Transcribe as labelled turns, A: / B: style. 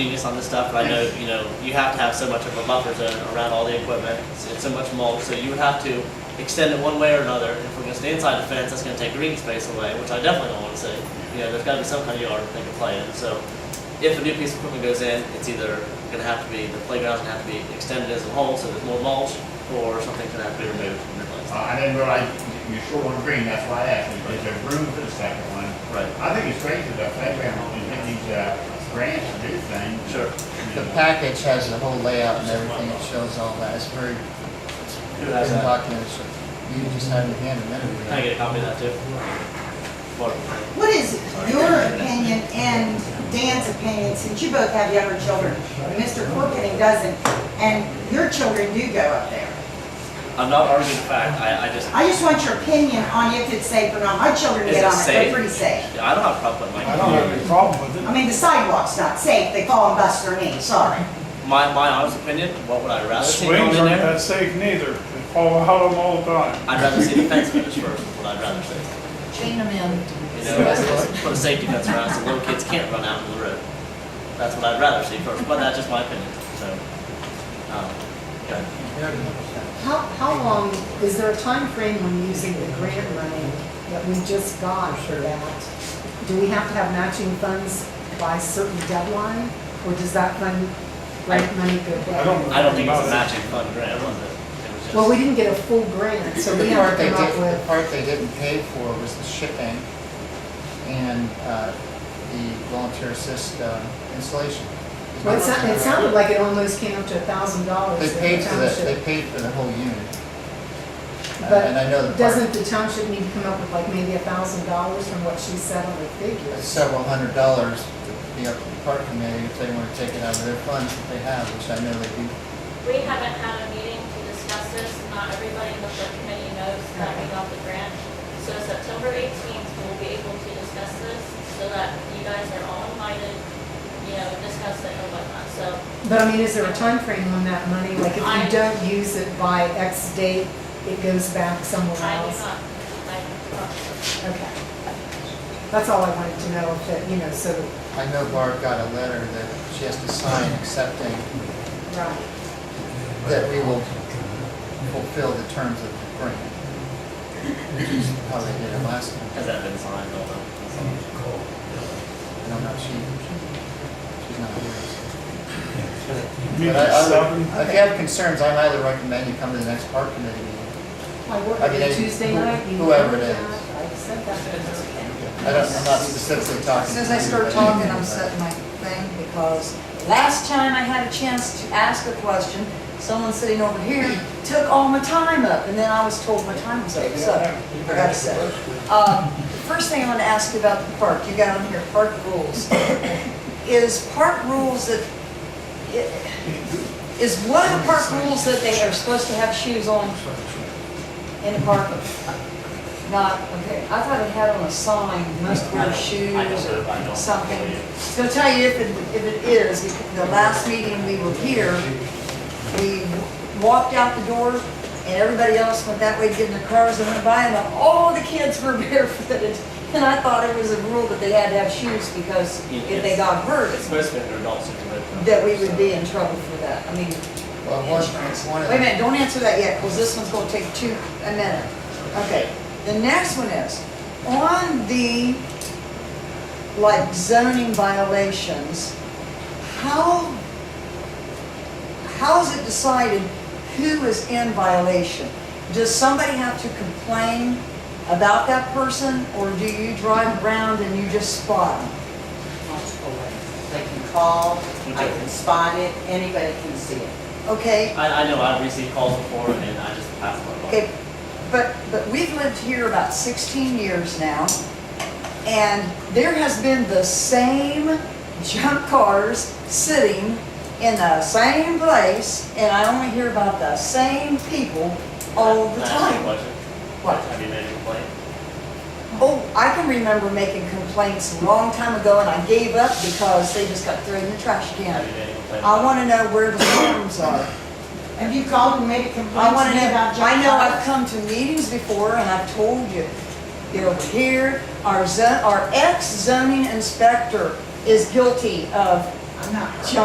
A: genius on this stuff, and I know, you know, you have to have so much of a buffer zone around all the equipment, it's, it's so much mulch, so you would have to extend it one way or another, if we're gonna stay inside the fence, that's gonna take green space away, which I definitely don't wanna see. You know, there's gotta be some kind of yard they can play in, so if a new piece of equipment goes in, it's either gonna have to be, the playground's gonna have to be extended as a whole, so there's more mulch, or something's gonna have to be removed and replaced.
B: Uh, I didn't realize you- you're short on green, that's why I asked, you. is there room for the second one?
A: Right.
B: I think it's crazy that playground only getting these, uh, grants to do things.
A: Sure.
C: The package has the whole layout and everything, it shows all that, it's very,
A: Who has
C: it's
A: that?
C: documented. so You just had it in hand a minute
A: Can I
C: ago.
A: get a copy of that too? Mark.
D: What is your opinion and Dan's opinion, since you both have younger children, and Mr. Corkening doesn't, and your children do go up there?
A: I'm not arguing the fact. I, I just,
D: I just want your opinion on if it's safe or not. My children
A: Is
D: get
A: it
D: on it,
A: safe?
D: they're pretty safe.
A: I don't have a problem with
E: I don't
A: my.
E: have any problem with
D: I
E: it.
D: mean, the sidewalk's not safe, they fall and bust their knee, sorry.
A: My, my honest opinion, what would I rather see going
E: Swings
A: in
E: aren't
A: there?
E: that safe neither. They fall out of them all the time.
A: I'd rather see the fence finish first, is what I'd rather see.
F: Chain them in.
A: You know, it's- it's put a safety fence around so little kids can't run out into the road. That's what I'd rather see first, but that's just my opinion, so. um, okay.
G: How, how long, is there a time frame when using the grant money that we just got for that? Do we have to have matching funds by certain deadline, or does that fund, grant money go
E: I
G: away?
E: don't. know
A: I don't think it's a
E: about it.
A: matching fund grant, was it? It was just-
G: Well, we didn't get a full grant, so we
C: The
G: have
C: part
G: to
C: they
G: come up
C: did, the
G: with,
C: part they didn't pay for was the shipping and, uh, the volunteer assist uh, installation.
G: well, it sounded, it sounded like it almost came up to a thousand dollars.
C: They paid
G: that the
C: for the,
G: township-
C: they paid for the whole unit. And- And I know the
G: But
C: part-
G: doesn't the township need to come up with like maybe a thousand dollars from what she said on the
C: It's
G: figures?
C: several hundred dollars to be up to the park committee if they want to take it out of their funds that they have, which I know they do.
H: We haven't had a meeting to discuss this, not everybody in the board committee knows that we got the grant. So September eighteenth, we'll be able to discuss this, so that you guys are all invited, you know, discuss it and whatnot, so.
G: But I mean, is there a time frame on that money? Like if
H: I-
G: you don't use it by X date, it goes back somewhere
H: I do
G: else?
H: not, I promise.
G: Okay. That's all I wanted to know, if it, you know, so,
C: I know Barb got a letter that she has to sign accepting
G: right.
C: that we will fulfill the terms of the grant. Which is how they did it last time.
A: Has that been signed, I don't know.
C: And I'm not, she, she's not here. But
E: Meet at
C: I- I
E: seven.
C: would- If you have concerns, I'd highly recommend you come to the next park committee meeting.
G: I work
C: I mean,
G: on
C: they-
G: Tuesday night. you
C: whoever it
G: know
C: is.
G: that. I said that.
C: I don't, I'm not specifically talking.
F: As soon as I start talking,
C: uh,
F: I'm setting my thing, because last time I had a chance to ask a question, someone sitting over here took all my time up, and then I was told my time was up, so I got to say. Uh, First thing I want to ask you about the park, you got on here, park rules. Is park rules that, is one of the park rules that they are supposed to have shoes on in the park? Not, okay, I thought it had on a sign, must wear shoes
A: I don't know, I
F: or
A: don't.
F: something. So I'll tell you if it, if it is, because the last meeting we were here, we walked out the door and everybody else went that way to get in their cars and went by and all the kids were barefooted. And I thought it was a rule that they had to have shoes because if they got hurt,
A: It's supposed to be under adult supervision.
F: that we would be
A: so-
F: in trouble for that. I mean,
C: Well, one, one of
F: Wait a
C: the
F: minute, don't answer that yet, because this one's gonna take two, a minute. Okay, the next one is, on the, like zoning violations, how, how is it decided who is in violation? Does somebody have to complain about that person, or do you drive around and you just spot them?
I: They can call, I can spot it, anybody can see it.
F: Okay,
A: I, I know, I've received calls before and I just pass them along.
F: Okay, but, but we've lived here about 16 years now, and there has been the same junk cars sitting in the same place, and I only hear about the same people all the
A: Can I ask you a
F: time.
A: question?
F: What?
A: Have you made a complaint?
F: Oh, I can remember making complaints a long time ago, and I gave up because they just got thrown in the trash
A: Have you
F: can.
A: made a complaint?
F: I want to know where the forms are.
D: Have you called and made a
F: I
D: complaint to
F: want to
D: me
F: know,
D: about junk?
F: I know
D: cars?
F: I've come to meetings before and I've told you, they're over here, our zo, our ex-zoning inspector is guilty of
D: I'm not.